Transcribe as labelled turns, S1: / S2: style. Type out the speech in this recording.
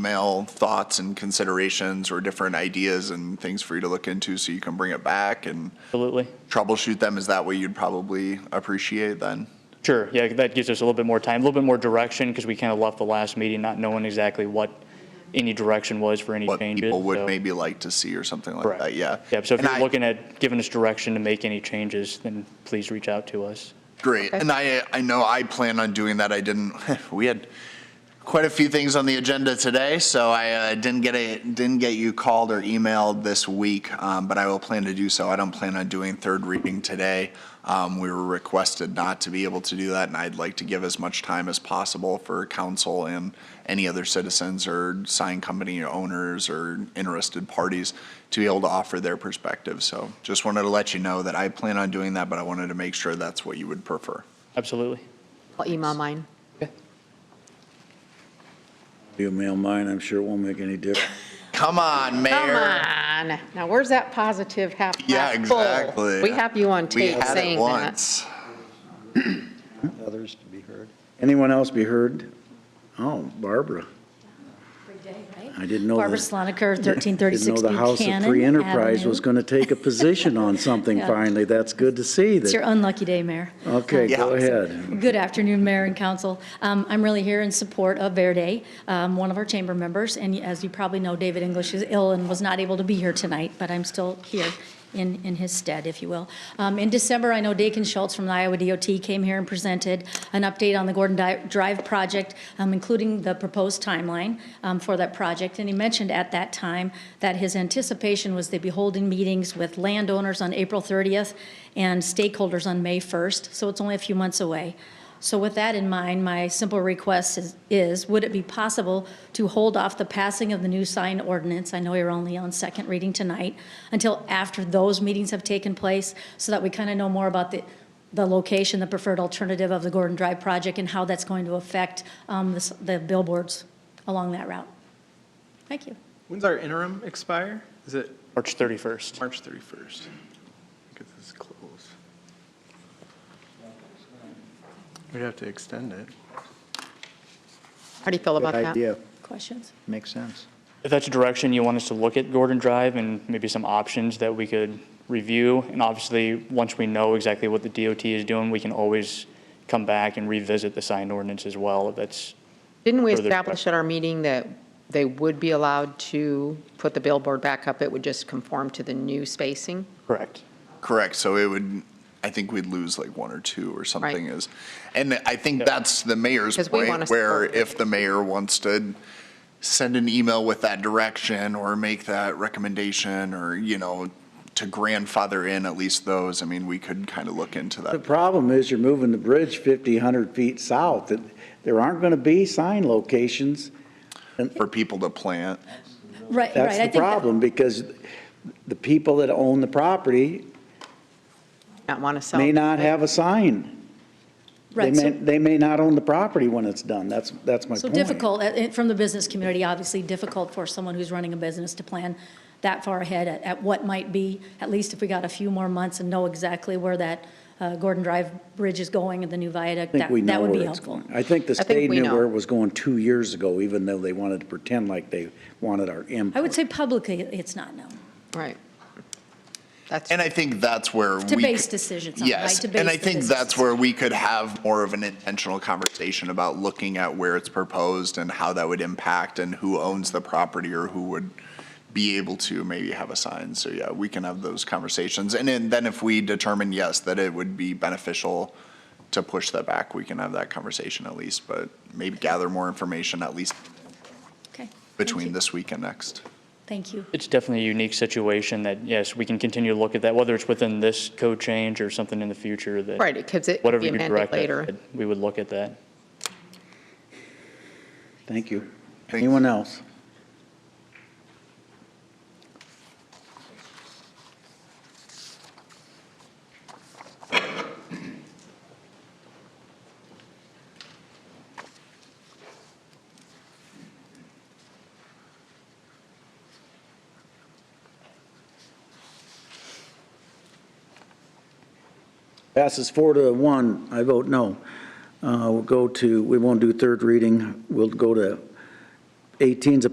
S1: email thoughts and considerations or different ideas and things for you to look into so you can bring it back and
S2: Absolutely.
S1: troubleshoot them? Is that what you'd probably appreciate then?
S2: Sure, yeah, that gives us a little bit more time, a little bit more direction, because we kind of left the last meeting not knowing exactly what any direction was for any
S1: What
S2: changes.
S1: people would
S2: so-
S1: maybe like to see or something like
S2: Correct.
S1: that, yeah.
S2: Yep, so if
S1: And
S2: you're
S1: I-
S2: looking at giving us direction to make any changes, then please reach out to us.
S1: Great. And I, I know I plan on doing that. I didn't, we had quite a few things on the agenda today, so I uh, didn't get a, didn't get you called or emailed this week, um, but I will plan to do so. I don't plan on doing third reading today. Um, We were requested not to be able to do that, and I'd like to give as much time as possible for council and any other citizens or sign company owners or interested parties to be able to offer their perspective. So just wanted to let you know that I plan on doing that, but I wanted to make sure that's what you would prefer.
S2: Absolutely.
S3: I'll email mine.
S4: You mail mine, I'm sure it won't make any difference.
S1: Come on, Mayor.
S3: Come on. Now, where's that positive half half full?
S1: Yeah, exactly.
S3: We have you on
S1: We
S3: tape
S1: had it
S3: saying that.
S1: once.
S5: others to be heard.
S4: Anyone else be heard? Oh, Barbara, I didn't know.
S6: Barbara
S4: the-
S6: Sloniker,
S4: Didn't
S6: 1336
S4: know
S6: New
S4: the House of
S6: Canaan
S4: Free Enterprise
S6: Avenue.
S4: was going to take a position on something
S6: Yeah.
S4: finally. That's good to see.
S6: It's your
S4: that-
S6: unlucky day, Mayor.
S4: Okay,
S1: Yeah.
S4: go ahead.
S6: Good afternoon, Mayor and Council. Um, I'm really here in support of Verde, um, one of our chamber members, and as you probably know, David English is ill and was not able to be here tonight, but I'm still here in, in his stead, if you will. Um, In December, I know Dakin Schultz from the Iowa DOT came here and presented an update on the Gordon Di- Drive project, um, including the proposed timeline um, for that project, and he mentioned at that time that his anticipation was they'd be holding meetings with landowners on April 30th and stakeholders on May 1st, so it's only a few months away. So with that in mind, my simple request is- is, would it be possible to hold off the passing of the new sign ordinance? I know you're only on second reading tonight, until after those meetings have taken place, so that we kind of know more about the, the location, the preferred alternative of the Gordon Drive project, and how that's going to affect um, this- the billboards along that route. Thank you.
S7: When's our interim expire? Is it
S2: March 31st.
S7: March 31st? Because this is close. We'd have to extend it.
S3: How do you feel about
S5: Good
S3: that?
S5: idea,
S6: Questions?
S5: makes sense.
S2: If that's a direction you want us to look at Gordon Drive and maybe some options that we could review, and obviously, once we know exactly what the DOT is doing, we can always come back and revisit the sign ordinance as well, if that's,
S3: Didn't we
S2: Further
S3: establish at our meeting that they would be allowed to put the billboard back up? It would just conform to the new spacing?
S2: correct.
S1: Correct. So it would, I think we'd lose like one or two or something
S3: Right.
S1: is. And I think that's the mayor's
S3: 'Cause we wanna
S1: point, where
S3: support.
S1: if the mayor wants to send an email with that direction or make that recommendation or, you know, to grandfather in at least those, I mean, we could kind of look into
S4: The
S1: that.
S4: problem is you're moving the bridge 50, 100 feet south. That- There aren't going to be sign locations.
S1: For people to plant,
S6: Right, right.
S4: That's
S6: I
S4: the
S6: think that-
S4: problem because the people that own the property
S3: Not want to sell?
S4: may not have a sign. They
S6: Oh. right, so-
S4: may, they may not own the property when it's done. That's, that's my point.
S6: So difficult, uh, it- from the business community, obviously difficult for someone who's running a business to plan that far ahead at, at what might be, at least if we got a few more months and know exactly where that uh, Gordon Drive Bridge is going and the new viaduct,
S4: I think
S6: that,
S4: we know
S6: that would be
S4: where it's
S6: helpful.
S4: going. I think the
S3: think
S4: state
S3: we
S4: knew
S3: know.
S4: where it was going two years ago, even though they wanted to pretend like they wanted our input.
S6: I would say publicly, it's not known.
S3: Right. That's,
S1: And I think that's where we.
S6: To
S1: could-
S6: base decisions on, right?
S1: Yes,
S6: To
S1: and I
S6: base the
S1: think
S6: business
S1: that's where we could have more of an intentional conversation about looking at where it's proposed and how that would impact and who owns the property or who would be able to maybe have a sign. So yeah, we can have those conversations. And then- then if we determine, yes, that it would be beneficial to push that back, we can have that conversation at least, but maybe gather more information at least
S6: Okay. Thank
S1: between
S6: you.
S1: this week and next.
S6: Thank you.
S2: It's definitely a unique situation that, yes, we can continue to look at that, whether it's within this code change or something in the future that.
S3: right, because it could
S2: Whatever
S3: be
S2: you
S3: amended
S2: direct, us,
S3: later.
S2: we would look at that.
S4: Thank you.
S1: Thanks.
S4: Anyone else? Passes four to one. I vote no. Uh, We'll go to, we won't do third reading. We'll go to 18's a